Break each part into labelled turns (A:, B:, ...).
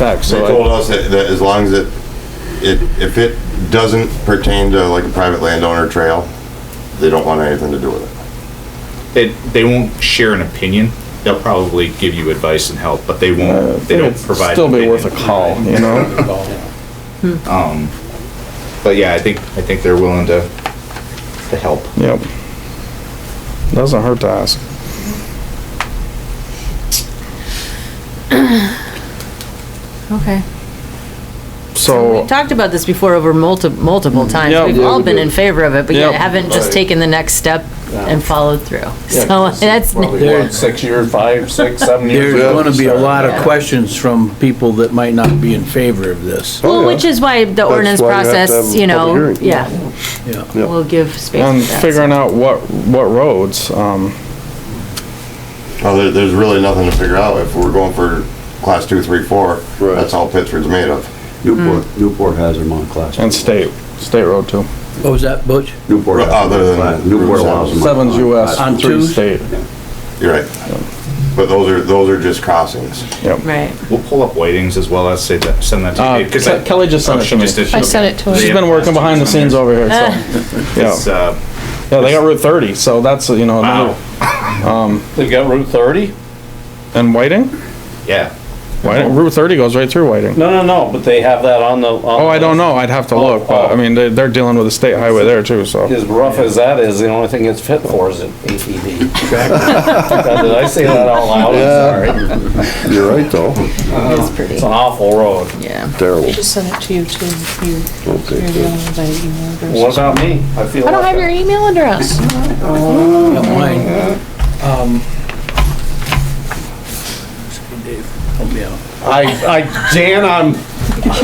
A: back,
B: They
A: so
B: told
A: I,
B: us that, that as long as it, it, if it doesn't pertain to like a private landowner trail, they don't want anything to do with it.
C: They, they won't share an opinion. They'll probably give you advice and help, but they won't, they don't
A: it'd
C: provide.
A: Uh, still be
C: opinion.
A: worth a call, you know?
C: But yeah, I think, I think they're willing to, to help.
A: Yep. Doesn't hurt to ask.
D: Okay.
A: So,
D: We talked about this before over multi- multiple times.
A: Mm. Yeah,
D: We've
A: yeah,
D: all
A: we
D: been
A: did.
D: in favor of it, but yet
A: Yep.
D: haven't just
B: Right.
D: taken the next step and followed through. So that's,
A: They're six years, five, six, seven years.
E: There's
A: ago.
E: gonna be a lot
D: Yeah.
E: of questions from people that might not be in favor of this.
D: well, which is why the ordinance
F: why you have to have
D: process,
F: a
D: you know,
F: public hearing.
D: yeah,
E: Yeah.
D: will give
A: On
D: space for that.
A: figuring out what, what roads, um,
B: Well, there, there's really nothing to figure out if we're going for class two, three, four,
F: Right.
B: that's all Pittsford's made of.
F: Newport,
A: Hmm.
F: Newport has them on class.
B: Oh,
A: and state, state road too.
E: What was that, Butch?
F: Newport, has
B: Other
F: them
B: than
F: on class- Newport allows them. on-
A: Seven's
F: on
A: US,
F: class.
E: On
A: three
E: two?
A: state,
B: You're right. But those are, those are just crossings.
A: yep.
D: Right.
C: We'll pull up weightings as well. I'll say that, send that
A: Uh,
C: to you. 'cause
A: Ke-
C: I-
A: Kelly just sent
C: oh,
A: it
C: she
A: to me.
C: just did- she-
G: I sent it to her.
C: they
A: She's
C: have
A: been working
C: last
A: behind the
C: week's on
A: scenes
C: there.
A: over here, so,
C: It's,
A: yeah.
C: uh, oh,
A: Yeah, they got Route thirty, so that's, you know,
C: wow,
A: another-
H: They got Route 30?
A: and Whiting?
C: yeah.
A: Whiting, Route thirty goes right through Whiting.
H: No, no, no, but they have that on the.
A: Oh, I don't know. I'd have to look, but I
H: oh.
A: mean, they're, they're dealing with a state highway there too, so.
H: As rough as that is, the only thing it's fit for is an ATV. God, Did I say that out loud? I'm sorry.
F: You're right, though.
D: It's pretty,
H: It's an awful road.
D: yeah.
F: Terrible.
G: I just sent it to you too. You,
F: Okay,
G: you're
F: good.
G: the only one by email address.
H: What about me? I feel
G: I don't
H: like
G: have your
H: I-
G: email address.
E: Yeah, mine. Um, Dave, help me out.
H: I, I, Dan, I'm,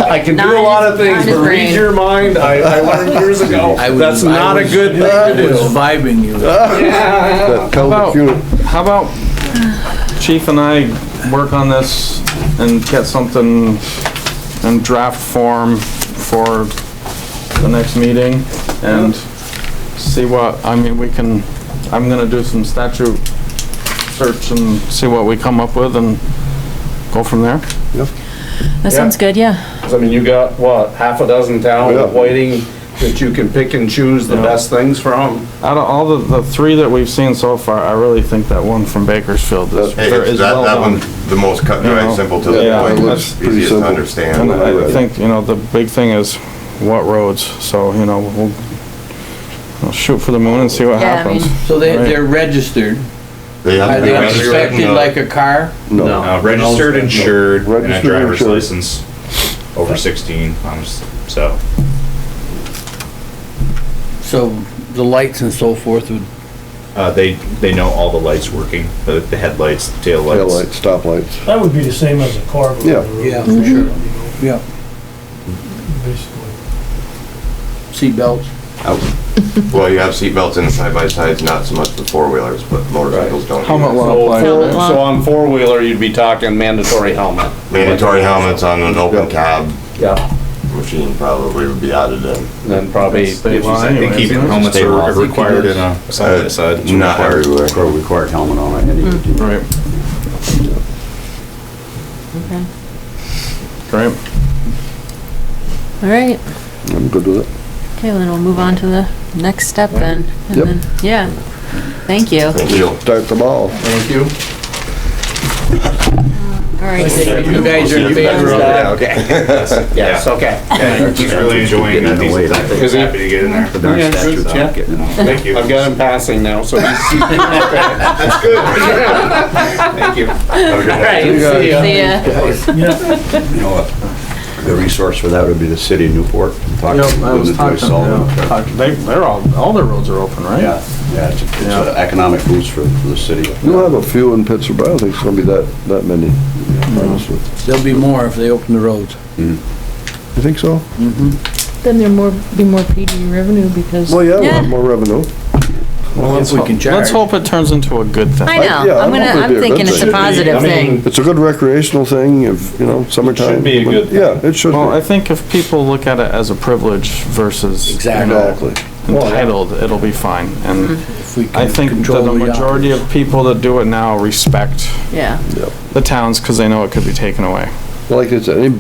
H: I can do a lot of things,
D: Nine is- nine is
H: but read
D: brain.
H: your mind, I, I learned years ago.
E: I was-
H: That's
E: I
H: not a
E: was-
H: good thing to
E: I was
H: do.
E: vibing you.
F: That pelvic
A: About-
F: unit-
A: How about Chief and I work on this and get something in draft form for the next meeting and see what, I mean, we can, I'm gonna do some statute search and see what we come up with and go from there.
D: That sounds good, yeah.
H: 'Cause I mean, you got, what, half a dozen
F: Yeah.
H: towns waiting that you can pick and choose the
A: Yeah.
H: best things from?
A: Out of all the, the three that we've seen so far, I really think that one from Bakersfield is,
B: Hey,
A: is
B: it's that,
A: well
B: that
A: done.
B: one's the most cut and
A: Yeah.
B: dry, simple to
A: Yeah,
B: the
A: it
B: point,
A: looks
B: it's
F: pretty
B: easiest to
F: simple.
B: understand.
A: And I
F: Right.
A: think, you know, the big thing is what roads, so, you know, we'll, we'll shoot for the moon and see what
D: Yeah, I
A: happens.
D: mean-
E: So they,
A: Right.
E: they're registered.
B: They have
E: Are
B: to be
E: they
C: registered,
E: inspected
B: measured.
E: like a car?
F: No.
C: Uh, registered, insured, and a
F: Registered,
C: driver's
F: insured.
C: license over sixteen, um, s- so.
E: So the lights and so forth would,
C: Uh, they, they know all the lights working, the, the headlights, tail lights.
F: Taillights, stoplights.
I: That would be the same as a car. but-
F: Yeah.
E: Yeah, for sure.
I: You know,
E: yeah,
I: Basically.
E: seatbelts.
B: Well, you have seatbelts in the side-by-sides, not so much the four-wheelers, but motorcycles don't.
A: Helmet
B: either.
A: law
H: So,
A: applies.
D: Helmet
H: four-
D: law.
H: so on four-wheeler, you'd be talking mandatory helmet.
B: Mandatory helmets on an open cab
H: Yeah.
B: machine probably would be added in.
H: Then probably,
A: State
H: if you
A: law
H: say-
C: I think
A: anyways,
C: even
A: isn't it?
C: helmets
B: They
C: are
B: were-
C: required in a side by side.
B: Uh, Not everywhere.
F: Pro required helmet on it, any
A: Hmm.
F: of you.
A: Right,
D: Okay.
A: great.
D: All right.
F: I'm good with it.
D: Okay, well, then we'll move on to the next step then. and
F: Yep.
D: then- Yeah. Thank you. All
B: Thank you.
F: Start the ball.
E: Thank you.
D: right.
E: You guys are in favor of that?
B: Yeah, okay.
H: yes, okay.
C: Yeah, he's really enjoying that.
F: Getting away,
C: He's
F: don't
H: they?
C: happy to get in there.
F: Darn
H: Yeah,
F: statues
H: good,
F: out.
H: yeah.
F: Getting them out.
C: Thank you.
H: I've got him passing now, so he's.
C: Thank you.
B: Have a good night.
H: See ya.
D: See ya.
F: You know what? The resource for that would be the city of Newport. Talk to
A: Yep, I was
F: Linda Joyce
A: talking,
F: Sullivan.
A: yeah, talk- they, they're all, all their roads are open, right?
F: Yeah, yeah, it's it's an economic boost for for the city.
J: You'll have a few in Pittsburgh, but I don't think it's gonna be that, that many. honestly.
E: There'll be more if they open the roads.
J: You think so?
G: Then there more, be more PD revenue because.
J: Well, yeah, we'll have
D: Yeah.
J: more revenue.
E: Well, if we can charge.
A: Let's hope it turns into a good thing.
D: I
J: I-
D: know.
J: yeah, I'm
D: I'm gonna,
J: hoping it'd be
D: I'm
J: a
D: thinking
J: good
D: it's a
J: thing.
D: positive
H: I mean,
D: thing.
J: It's a good recreational thing, if, you know, summertime.
H: be a good thing.
J: Yeah, it should
A: Well, I
J: be.
A: think if people look at it as a privilege versus. you
E: Exactly.
A: know,
J: Exactly.
A: Entitled, it'll be fine, and
D: Mm-hmm.
E: If we can
A: I think that
E: control
A: the
E: uh,
A: majority of people that do it now respect
D: Yeah.
A: the towns, cause they know it could be taken away.
H: Like I said, any-